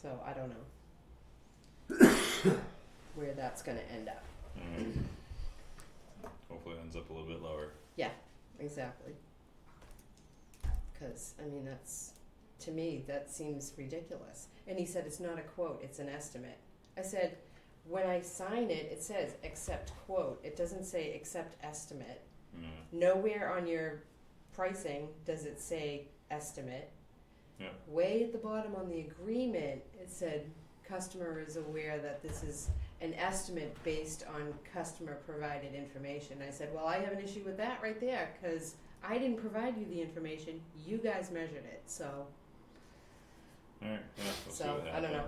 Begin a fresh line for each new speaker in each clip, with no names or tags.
So I don't know where that's gonna end up.
Alright. Mm-hmm. Hopefully it ends up a little bit lower.
Exactly. Cause I mean, that's, to me, that seems ridiculous. And he said, it's not a quote, it's an estimate. I said, when I sign it, it says accept quote, it doesn't say accept estimate.
Yeah.
Nowhere on your pricing does it say estimate.
Yeah.
Way at the bottom on the agreement, it said customer is aware that this is an estimate based on customer provided information. I said, well, I have an issue with that right there because I didn't provide you the information. You guys measured it. So
Alright, yeah, we'll see
So,
what
I don't know.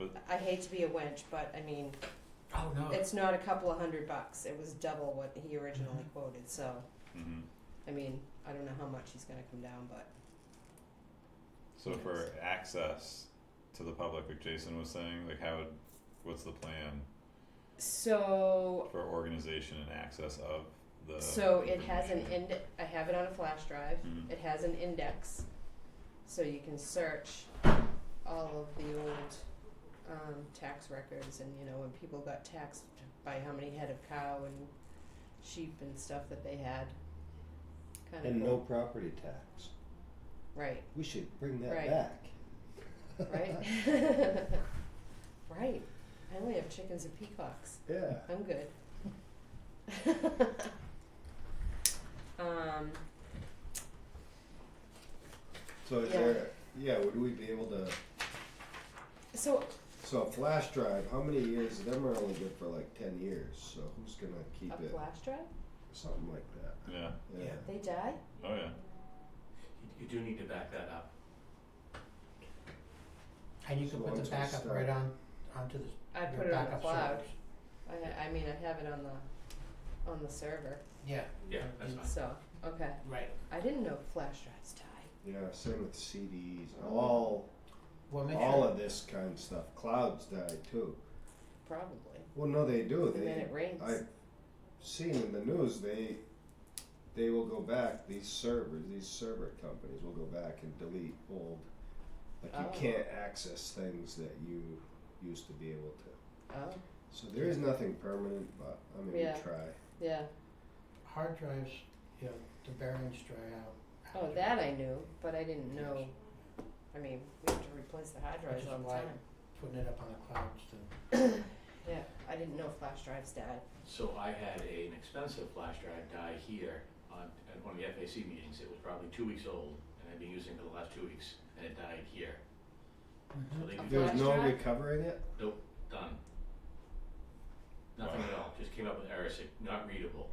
happens.
I hate to be a wench, but I mean,
Oh no.
it's not a couple of hundred bucks. It was double what he originally quoted. So,
hmm
I mean, I don't know how much he's going to come down, but
So for access to the public, like Jason was saying, like how would, what's the plan
so
for organization and access of the
So it has an
information?
ind, I have it on a flash drive,
Mhm.
it has an index, so you can search all of the old, um, tax records and, you know, when people got taxed by how many head of cow and sheep and stuff that they had. Kinda
And no
cool,
property tax.
right,
We should bring that
Right.
back.
right? Right, I only have chickens and peacocks.
yeah.
I'm good. Um,
So is
Yeah.
there, yeah, would we be able to,
so
so a flash drive, how many years, them are only good for like ten years, so who's gonna keep
a
it?
flash drive,
Something like that,
Yeah.
yeah.
Yeah.
they die?
Oh yeah.
You, you do need to back that up.
And you can
So
put
once
the
we
backup
start-
right on onto the
I
your
put it on the
backup
cloud.
servers.
I, I mean, I have it on the, on the server,
Yeah.
Yeah, that's
you-
fine.
so, okay.
Right.
I didn't know flash drives die.
Yeah, same with CDs, all,
Well, make
all
sure.
of this kind of stuff, clouds die too.
Probably.
Well, no, they do,
The
Oh, they,
minute it rains.
I've seen in the news they they will go back these servers these server companies will go back and delete old like
Oh.
you can't access things that you used to be able to
Oh,
so there is nothing permanent but i mean
Yeah.
we try
yeah.
Hard drives, you know, the bearings dry out.
Oh,
after-
that I knew, but I didn't know, I mean, we have to replace the hard drives
is
all the
why-
time.
Putting it up on the clouds to
Yeah, I didn't know flash drives died.
So I had a- an expensive flash drive die here on, at one of the FAC meetings. It was probably two weeks old and I've been using it for the last two weeks and it died here. So they
A
do
there's
flash
no
drive?
recovering it
done. Nothing at all, just came up with errors, like, not readable.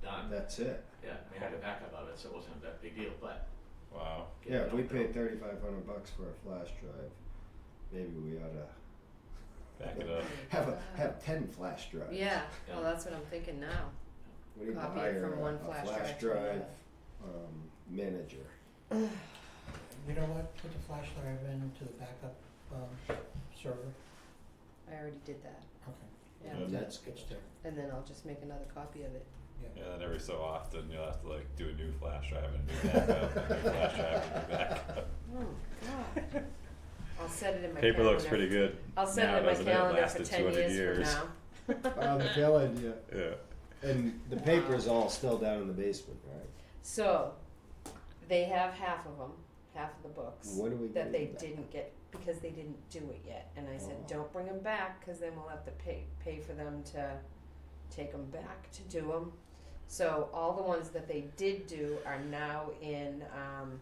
Done,
that's it
yeah, I mean, I had a backup of it, so it wasn't that big deal, but.
Wow.
get
yeah
it
if we
out
paid 3500 bucks for a flash drive maybe we ought to
Back it up.
have a have 10 flash drives
uh, Yeah, well,
Yeah.
that's what I'm thinking now.
we need to
Copy it
hire
from
a,
one
a
flash drive
flash
to another.
drive um, manager
You know what, put the flash drive into the backup um server,
I already did that,
okay,
yeah.
Yeah.
and that's good
it's there,
And then I'll just make another copy of it.
Yeah, then every so often you'll have to like do a new flash drive and a new backup, and a new flash drive and a new backup.
Oh, God. I'll set it in my calendar.
Paper looks pretty good.
I'll set
now,
it in my
doesn't it? It
calendar for
lasted
ten
200
years
years.
from now.
i'm telling you
Yeah.
And the paper's all still down in the basement, right?
So, they have half of them, half of the books
What do we
that
do
they
with that?
didn't get because they didn't do it yet. And I said,
Oh.
don't bring them back because then we'll have to pay pay for them to take them back to do them. So all the ones that they did do are now in um,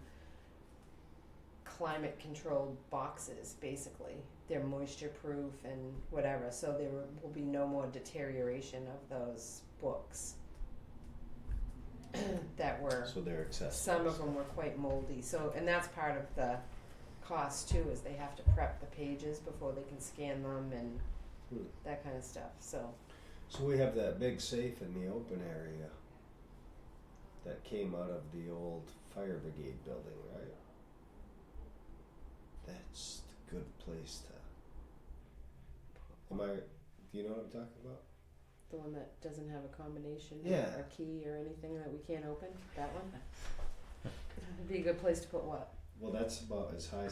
climate controlled boxes. Basically, they're moisture proof and whatever. So there will be no more deterioration of those books that were
So they're accessible.
some of them were quite moldy. So, and that's part of the cost too, is they have to prep the pages before they can scan them and
Hmm.
that kind of stuff. So,
So we have that big safe in the open area that came out of the old fire brigade building, right? That's a good place to. Am I? Do you know what I'm talking about?
the one that doesn't have a combination
Yeah.
or key or anything that we can't open, that one. Would be a good place to put what?
Well, that's about as high